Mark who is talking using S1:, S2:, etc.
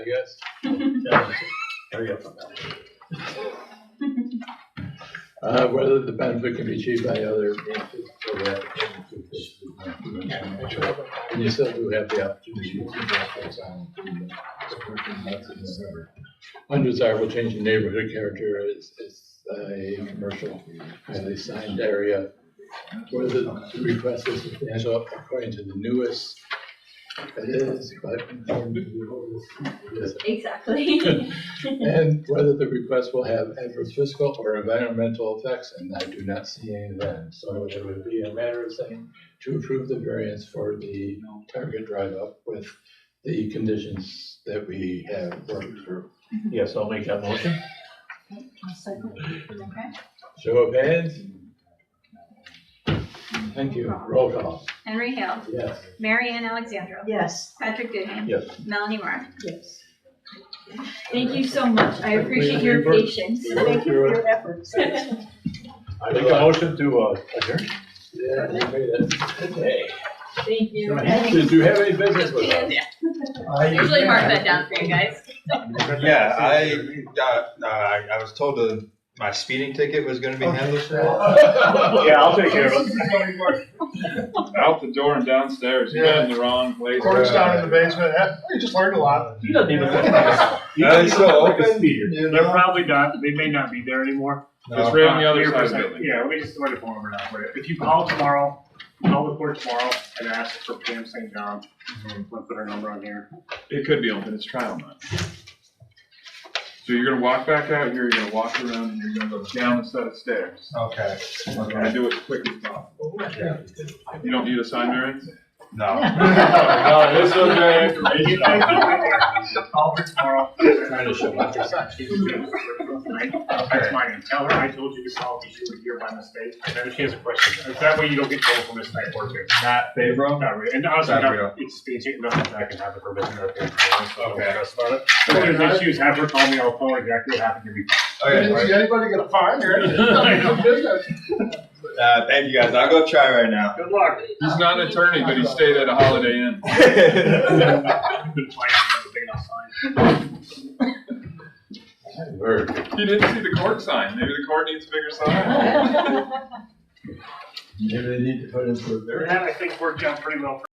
S1: Yes.
S2: There you go.
S1: Uh, whether the benefit can be achieved by other means.
S2: So we have to change to this.
S1: And you still do have the opportunity. to do that. Undesirable change in neighborhood character is, is a commercial, highly signed area. Whether the request is substantial according to the newest, it is, but. It is.
S3: Exactly.
S1: And whether the request will have adverse fiscal or environmental effects, and I do not see any of that. So it would be a matter of saying to approve the variance for the Target Drive up with the conditions that we have worked through.
S2: Yes, I'll make that motion.
S1: Show of hands? Thank you. Roll call.
S3: Henry Hale,
S1: Yes.
S3: Mary Ann Alexandra,
S4: Yes.
S3: Patrick Goodham.
S2: Yes.
S3: Melanie Moore.
S4: Yes.
S3: Thank you so much. I appreciate your
S1: Thank you.
S3: patience.
S4: Thank you for your efforts.
S2: I make a motion to uh, adjourn.
S1: Yeah, you made it. Okay.
S3: Thank you.
S1: Did you have any business with us?
S3: Usually mark that down for you guys.
S5: Yeah, I got, uh, I, I was told that my speeding ticket was gonna be handled.
S6: Oh,
S2: Yeah, I'll take care of it.
S6: Out the door and downstairs, you got in the wrong place.
S7: Cords down in the basement, eh, you just learned a lot.
S2: He doesn't even look
S5: Uh,
S2: like
S6: You know,
S5: it's still
S6: like a
S5: open.
S6: speeder.
S7: They're probably not, they may not be there anymore.
S6: It's
S5: No.
S6: right on the other
S7: Here for
S6: side
S7: a
S6: of the
S7: second.
S6: building.
S7: Yeah, let me just let it form over now for you. If you call tomorrow, call the court tomorrow and ask for Pam St. John, we'll put her number on here.
S6: It could be open, it's trial night. So you're gonna walk back out here, you're gonna walk around, and you're gonna go down a set of stairs.
S5: Okay,
S6: And I
S5: okay,
S6: do it as quick as possible.
S5: yeah,
S6: You don't need a sign, Marion?
S5: no.
S6: No, this was very
S7: You
S6: informational.
S7: guys Call her tomorrow.
S1: Trying to show off your side.
S7: That's my name. Tell her I told you to call because you were here by mistake. And then if she has a question, that way you don't get told from this night work. Not
S5: Favor?
S7: Not really, and honestly,
S5: Not
S7: no,
S5: real.
S7: it's being taken up, I can have the permission of the parents, so I don't
S5: Okay.
S7: stress about it. If there's issues, have her call me, I'll tell her exactly what happened to me.
S5: Okay,
S7: Didn't see
S1: anybody get a fine or
S5: uh, thank you guys, I'll go try right now.
S7: Good luck.
S6: He's not an attorney, but he stayed at a Holiday Inn.
S7: Been playing, I've been outside.
S1: Word.
S6: He didn't see the court sign, maybe the court needs a bigger sign.
S1: Maybe they need to put in for a
S7: And that, I think, worked out pretty well for